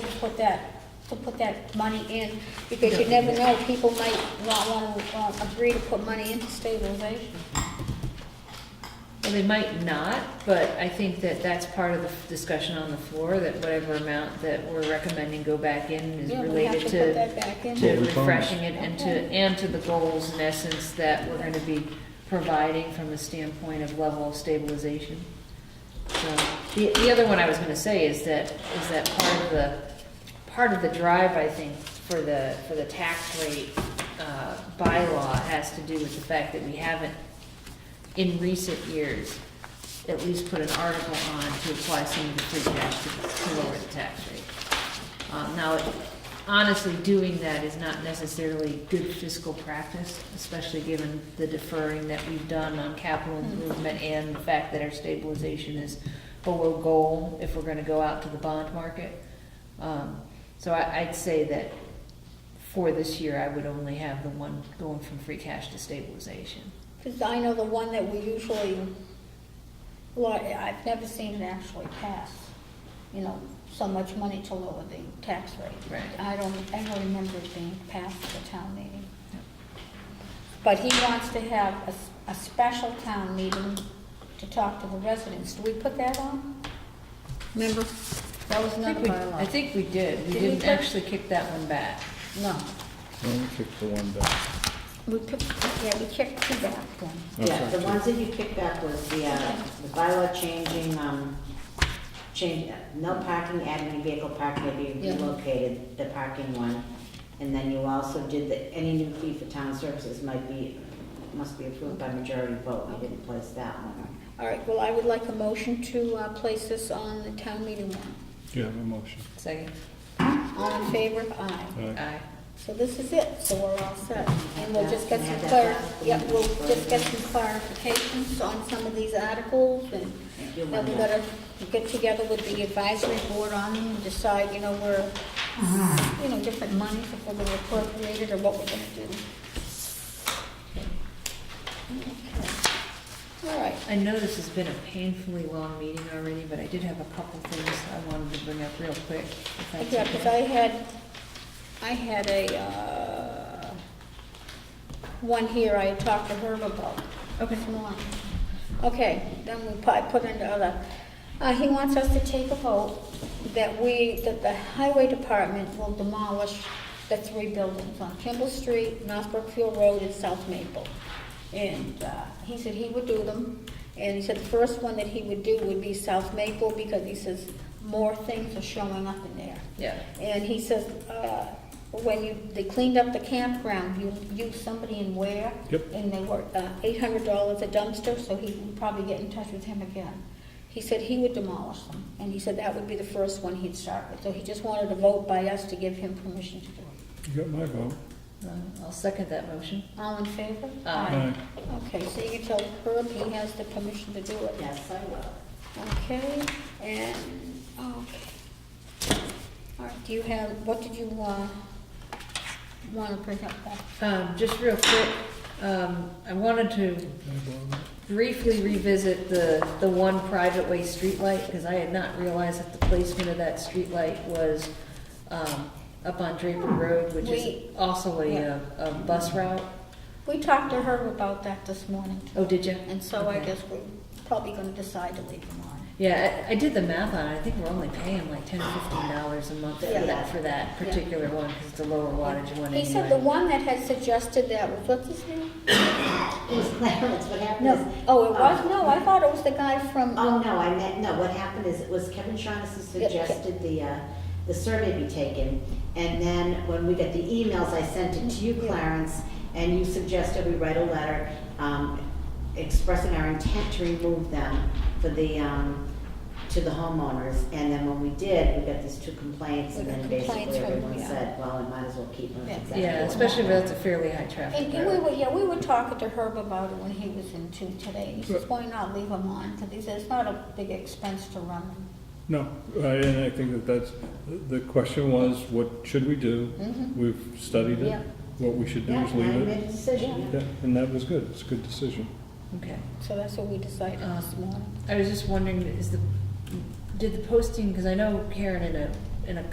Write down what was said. to put that, to put that money in, because you never know, people might not want to agree to put money into stabilization. Well, they might not, but I think that that's part of the discussion on the floor, that whatever amount that we're recommending go back in is Yeah, we have related to put to, that back in. to Well, we promised. refreshing it and to, Okay. and to the goals in essence that we're gonna be providing from a standpoint of level of stabilization. So, The, the other one I was gonna say is that, is that part of the, part of the drive, I think, for the, for the tax rate, uh, bylaw has to do with the fact that we haven't, in recent years, at least put an article on to apply some of the free cash to, to lower the tax rate. Um, now, honestly, doing that is not necessarily good fiscal practice, especially given the deferring that we've done on capital Mm-hmm. improvement and the fact that our stabilization is below goal if we're gonna go out to the bond market. Um, so I, I'd say that for this year, I would only have the one going from free cash to stabilization. Because I know the one that we usually, well, I've never seen it actually pass, you know, so much money to lower the tax rate. Right. I don't ever remember it being passed at the town meeting. But he wants to have a, s- a special town meeting to talk to the residents. Do we put that on? Remember? That was I think another we- I bylaw. think we did, we Did we didn't put- actually kick that one back. No, Let me kick the one back. we picked, yeah, we kicked two back then. Oh, Yeah, the sorry. ones that you kicked back was the, uh, the bylaw changing, um, change, no parking, adding a vehicle parking to be Yeah. relocated, the parking one. And then you also did that any new fee for town services might be, must be approved by majority vote, we didn't place that one. All right, well, I would like a motion to, uh, place this on the town meeting warrant. Do you have a motion? Uh, Second, All in favor? Aye. Aye. aye. So this is it, so we're all set. And we'll just get some clar, yep, we'll just get some clarifications on some of these articles and then we gotta get together with the advisory board on them and decide, you know, where, you know, different monies if we're gonna appropriate it or what we're gonna do. Okay. All right, I know this has been a painfully long meeting already, but I did have a couple things I wanted to bring up real quick. if that's Yeah, because okay. I had, I had a, uh, one here I talked to Herb about. Okay. Come on. Okay, then we pu- I put into other, uh, he wants us to take a vote that we, that the highway department will demolish the three buildings on Kimball Street, North Brookfield Road, and South Maple. And, uh, he said he would do them, and he said the first one that he would do would be South Maple, because he says more things are showing up in there. Yeah, And he says, uh, when you, they cleaned up the campground, you used somebody in Ware. Yep. And they were, uh, eight hundred dollars a dumpster, so he would probably get in touch with him again. He said he would demolish them, and he said that would be the first one he'd start with, so he just wanted a vote by us to give him permission to do it. You got my vote. Um, I'll second that motion. All in favor? Aye. Okay, so you can tell Herb he has the permission to do it. Yes, I will. Okay, and, okay. All right, do you have, what did you, uh, wanna bring up that? Um, just real quick, um, I wanted to briefly revisit the, the one private way streetlight, because I had not realized that the placement of that streetlight was, um, up on Draper Road, which We- is also a, yeah. uh, a bus route. We talked to her about that this morning, Oh, did you? and so I guess we're probably gonna decide to leave them on. Yeah, I, I did the math on it, I think we're only paying like ten, fifteen dollars a month for Yeah. that, for that Yeah. particular one, because it's a lower wattage one anyway. He said the one that had suggested that was, what's his name? It was Clarence, what happened is. uh, No, oh, it was, no, I thought it was the guy from, Oh, no, I meant, no, what happened is, it was Kevin Shaughnessy Yeah, Ke- suggested the, uh, the survey be taken, and then when we got the emails, I sent it to you, Clarence, and you suggested we write a letter, um, expressing our intent to remove them for the, um, to the homeowners, and then when we did, we got these two complaints, and We got then basically complaints from- everyone yeah. said, well, we might as well keep them. Yeah. Exactly Yeah, what especially if happened. it's a fairly high traffic and and we road. were, yeah, we were talking to Herb about it when he was in too today. He says, why not leave them on? Because he said it's not a big expense to run them. No, I- and I think that that's, the question was, what should we do? We've studied Mm-hmm. it. Yeah. What we should do Yeah, is and I leave made it. a decision, Yeah, and that was good. It's a good decision. Okay. So that's what we decided this Um, morning. I was just wondering, is the, did the posting, because I know Karen in a, in a